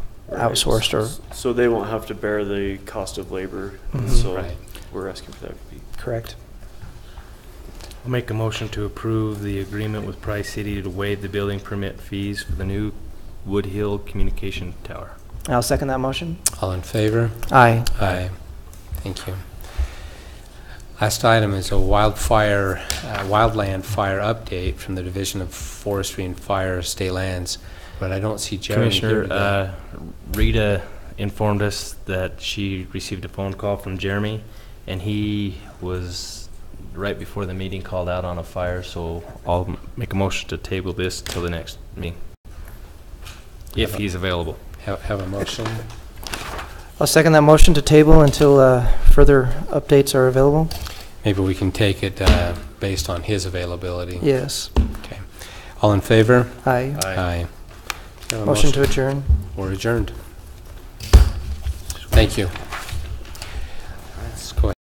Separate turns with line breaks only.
outsourced or,
So they won't have to bear the cost of labor,
Mhm.
so
Right.
we're asking for that to be
correct?
I'll make a motion to approve the agreement with Price City to waive the building permit fees for the new Wood Hill Communication Tower.
I'll second that motion.
All in favor?
Aye.
Aye. Thank you. Last item is a wildfire, uh, wildland fire update from the Division of Forestry and Fire State Lands, but I don't see Jeremy here
Commissioner,
today.
uh, Rita informed us that she received a phone call from Jeremy, and he was, right before the meeting, called out on a fire, so I'll m- make a motion to table this till the next meeting, if he's available.
Have have a motion?
I'll second that motion to table until uh, further updates are available.
Maybe we can take it uh, based on his availability.
Yes.
All in favor?
Aye.
Aye. Have a
Motion to adjourn.
We're adjourned. Thank you.